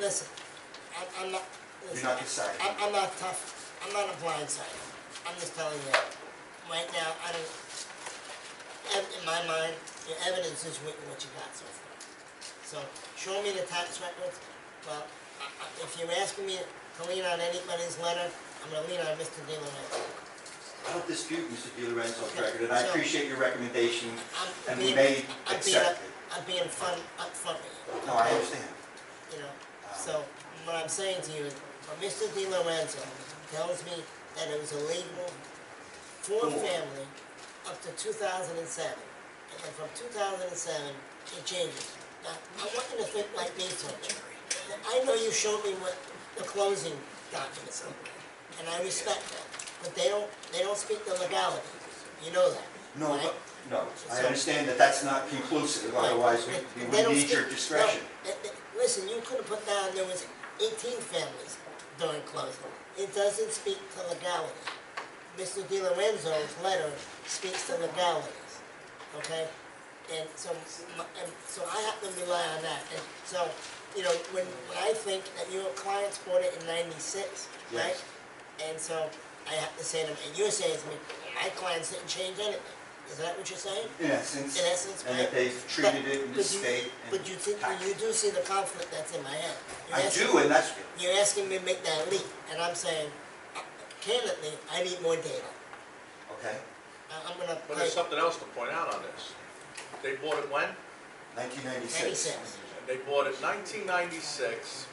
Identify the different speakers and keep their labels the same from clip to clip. Speaker 1: listen, I, I'm not, listen.
Speaker 2: not deciding.
Speaker 1: I, I'm not tough, I'm not a blindsider, I'm just telling you, right now, I don't, ev- in my mind, the evidence is with what you got so far. So, show me the tax records, well, I, I, if you're asking me to lean on anybody's letter, I'm gonna lean on Mr. Di Lorenzo.
Speaker 2: I don't dispute Mr. Di Lorenzo's
Speaker 1: Okay,
Speaker 2: record, and I
Speaker 1: so-
Speaker 2: appreciate your recommendation,
Speaker 1: I'm
Speaker 2: and we
Speaker 1: being-
Speaker 2: may
Speaker 1: I'm being
Speaker 2: accept
Speaker 1: up-
Speaker 2: it.
Speaker 1: I'm being fun, upfront with you.
Speaker 2: No, I understand.
Speaker 1: you know, so what I'm saying to you is, when Mr. Di Lorenzo tells me that it was illegal for a
Speaker 2: Cool.
Speaker 1: family up to two thousand and seven, and then from two thousand and seven, it changes. Now, I want you to think like me for a minute. Now, I know you showed me what the closing documents look like, and I respect that, but they don't, they don't speak the legality, you know that,
Speaker 2: No,
Speaker 1: right?
Speaker 2: but, no, I
Speaker 1: So-
Speaker 2: understand that that's not conclusive,
Speaker 1: Right.
Speaker 2: otherwise we-
Speaker 1: They-
Speaker 2: we
Speaker 1: they
Speaker 2: would
Speaker 1: don't
Speaker 2: need your
Speaker 1: speak-
Speaker 2: discretion.
Speaker 1: no, th- th- Listen, you could have put down there was eighteen families during closing. It doesn't speak to legality. Mr. Di Lorenzo's letter speaks to legalities, okay? And so, my- and so I have to rely on that. And so, you know, when, when I think that your clients bought it in ninety-six, right?
Speaker 2: Yes.
Speaker 1: And so I have to say to them, and you're saying to me, my clients didn't change anything. Is that what you're saying?
Speaker 2: In essence,
Speaker 1: In essence,
Speaker 2: and
Speaker 1: right?
Speaker 2: that they've treated it
Speaker 1: But-
Speaker 2: in the
Speaker 1: but you-
Speaker 2: state and
Speaker 1: But you think,
Speaker 2: taxed.
Speaker 1: you do see the conflict that's in my head. You're
Speaker 2: I
Speaker 1: asking-
Speaker 2: do, and that's,
Speaker 1: You're asking me to make that leap, and I'm saying, uh, candidly, I need more data.
Speaker 2: okay,
Speaker 1: I- I'm gonna
Speaker 3: But
Speaker 1: play
Speaker 3: there's something else to point out on this. They bought it when?
Speaker 2: nineteen ninety-six.
Speaker 1: ninety-six.
Speaker 3: They bought it nineteen ninety-six,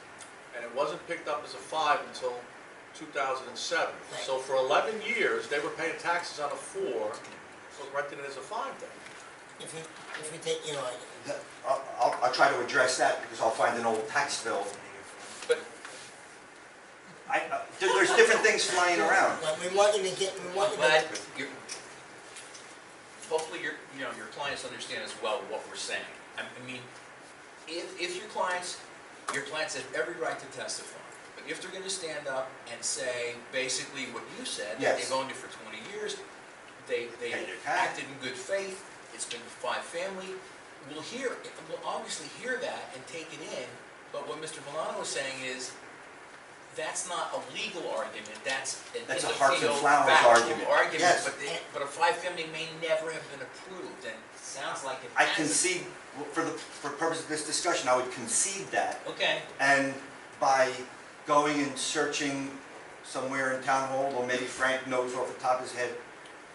Speaker 3: and it wasn't picked up as a five until two thousand and seven. So for eleven years, they were paying taxes on a four, so renting it as a five then.
Speaker 1: If you, if you take your argument.
Speaker 2: I'll, I'll, I'll try to address that, because I'll find an old tax bill.
Speaker 3: But-
Speaker 2: I, uh, there- there's different things flying around.
Speaker 1: But we want you to get, we want you
Speaker 4: But
Speaker 1: to,
Speaker 4: you're, hopefully your, you know, your clients understand as well what we're saying. I I mean, if, if your clients, your clients have every right to testify, but if they're gonna stand up and say basically what you said, that
Speaker 2: Yes.
Speaker 4: they've owned it for twenty years, they, they
Speaker 2: Pay their tax.
Speaker 4: acted in good faith, it's been five family, we'll hear, we'll obviously hear that and take it in, but what Mr. Valano was saying is, that's not a legal argument, that's an
Speaker 2: That's a
Speaker 4: in the
Speaker 2: hearts and
Speaker 4: field
Speaker 2: flowers
Speaker 4: factual
Speaker 2: argument. Yes.
Speaker 4: but they- but a five family may never have been approved, and it sounds like it
Speaker 2: I
Speaker 4: hasn't.
Speaker 2: concede, for the, for purpose of this discussion, I would concede that.
Speaker 4: Okay,
Speaker 2: And by going and searching somewhere in town hall, or maybe Frank knows off the top of his head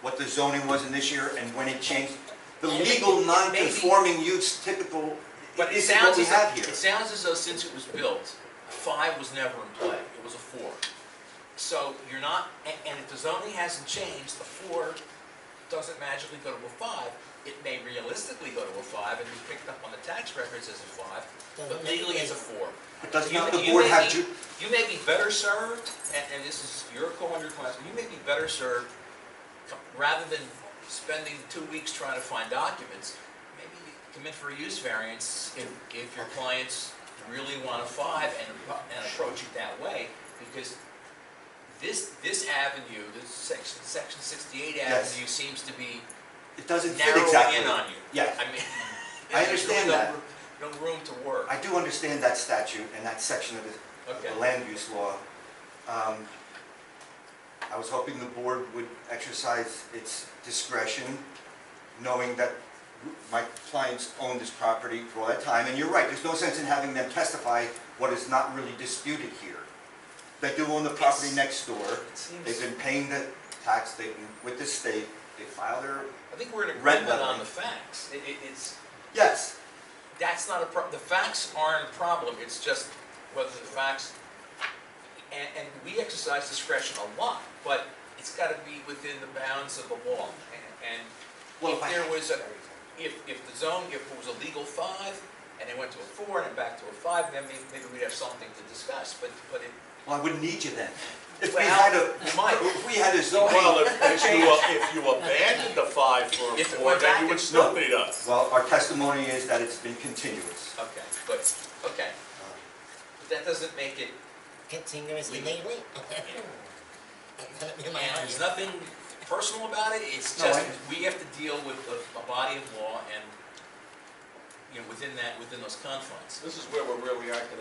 Speaker 2: what the zoning was in this year and when it changed, the
Speaker 4: And
Speaker 2: legal
Speaker 4: maybe-
Speaker 2: non-conforming use typical
Speaker 4: but it
Speaker 2: is what
Speaker 4: sounds
Speaker 2: we
Speaker 4: as,
Speaker 2: have
Speaker 4: though-
Speaker 2: here.
Speaker 4: it sounds as though since it was built, a five was never in play, it was a four. So you're not, and, and if the zoning hasn't changed, a four doesn't magically go to a five. It may realistically go to a five and be picked up on the tax records as a five, but
Speaker 1: Doesn't make
Speaker 4: legally it's a
Speaker 1: it.
Speaker 4: four.
Speaker 2: But does
Speaker 4: You-
Speaker 2: not the
Speaker 4: you
Speaker 2: board
Speaker 4: may
Speaker 2: have,
Speaker 4: be-
Speaker 2: ju-
Speaker 4: You may be better served, and, and this is your call on your class, you may be better served, co- rather than spending two weeks trying to find documents, maybe you come in for a use variance if, if your clients really want a five and, and approach it that way, because this, this avenue, this section, section sixty-eight
Speaker 2: Yes.
Speaker 4: avenue seems to be
Speaker 2: it doesn't fit
Speaker 4: narrowing
Speaker 2: exactly.
Speaker 4: in on you.
Speaker 2: Yes.
Speaker 4: I mean.
Speaker 2: I
Speaker 4: there's really
Speaker 2: understand
Speaker 4: no
Speaker 2: that.
Speaker 4: ro- No room to work.
Speaker 2: I do understand that statute and that section of the
Speaker 4: Okay.
Speaker 2: the land use law. Um, I was hoping the board would exercise its discretion, knowing that my clients owned this property for all that time. And you're right, there's no sense in having them testify what is not really disputed here. They do own the property
Speaker 4: Yes.
Speaker 2: next door.
Speaker 4: It seems-
Speaker 2: They've been paying the tax, they've been with the state, they file their,
Speaker 4: I think we're in
Speaker 2: Red
Speaker 4: agreement on
Speaker 2: line.
Speaker 4: the facts. It, it, it's,
Speaker 2: yes,
Speaker 4: that's not a pro, the facts aren't a problem, it's just whether the facts, and, and we exercise discretion a lot, but it's gotta be within the bounds of the law. And, and
Speaker 2: Well, if
Speaker 4: if
Speaker 2: I-
Speaker 4: there was a, if, if the zone, if it was a legal five, and it went to a four and then back to a five, then maybe, maybe we'd have something to discuss, but, but it,
Speaker 2: well, I wouldn't need you then. If we
Speaker 4: Well,
Speaker 2: had a,
Speaker 4: you might.
Speaker 2: if we had a zoning.
Speaker 3: Well, if, if you, uh, if you abandoned the five for a
Speaker 4: If it
Speaker 3: four,
Speaker 4: went
Speaker 3: then
Speaker 4: back
Speaker 3: you would
Speaker 4: and-
Speaker 3: still need us.
Speaker 2: Well, our testimony is that it's been continuous.
Speaker 4: okay, but, okay.
Speaker 2: Uh,
Speaker 4: But that doesn't make it,
Speaker 1: continuously
Speaker 4: We-
Speaker 1: legally. That'd be my
Speaker 4: And
Speaker 1: argument.
Speaker 4: there's nothing personal about it, it's
Speaker 2: No, I-
Speaker 4: just, we have to deal with a, a body of law and, you know, within that, within those confines.
Speaker 3: This is where we're really acting